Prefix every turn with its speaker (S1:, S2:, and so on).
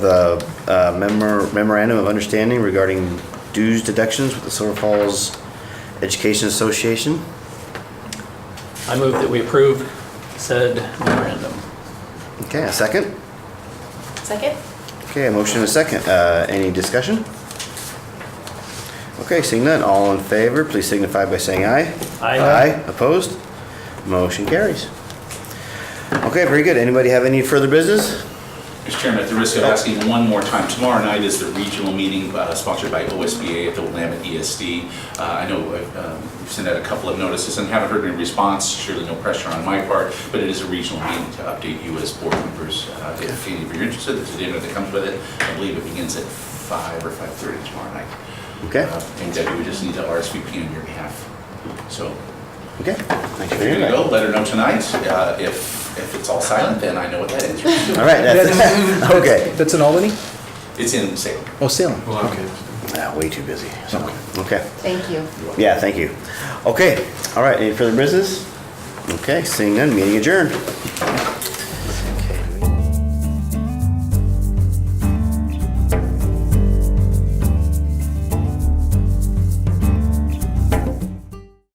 S1: the uh, memor- memorandum of understanding regarding dues deductions with the Silver Falls Education Association.
S2: I move that we approve said memorandum.
S1: Okay, a second?
S3: Second?
S1: Okay, a motion and a second. Uh, Any discussion? Okay, seeing none, all in favor, please signify by saying aye.
S2: Aye.
S1: Aye, opposed? Motion carries. Okay, very good. Anybody have any further business?
S4: Mr. Chairman, at the risk of asking one more time, tomorrow night is the regional meeting uh, sponsored by OSBA at the Willamette ESD. Uh, I know uh, um, we've sent out a couple of notices and haven't heard any response, surely no pressure on my part, but it is a regional meeting to update you as board members. Uh, If any of you are interested, there's a dinner that comes with it. I believe it begins at 5 or 5:30 tomorrow night.
S1: Okay.
S4: Uh, And Debbie, we just need to RSVP on your behalf. So
S1: Okay, thanks
S4: if
S1: for
S4: you're
S1: your
S4: going to go,
S1: input.
S4: let her know tonight. Uh, If if it's all silent, then I know what that is.
S1: All right, that's, okay.
S5: That's in Albany?
S4: It's in Salem.
S5: Oh, Salem.
S1: Ah, Way too busy, so, okay.
S3: Thank you.
S1: Yeah, thank you. Okay, all right, any further business? Okay, seeing none, meeting adjourned.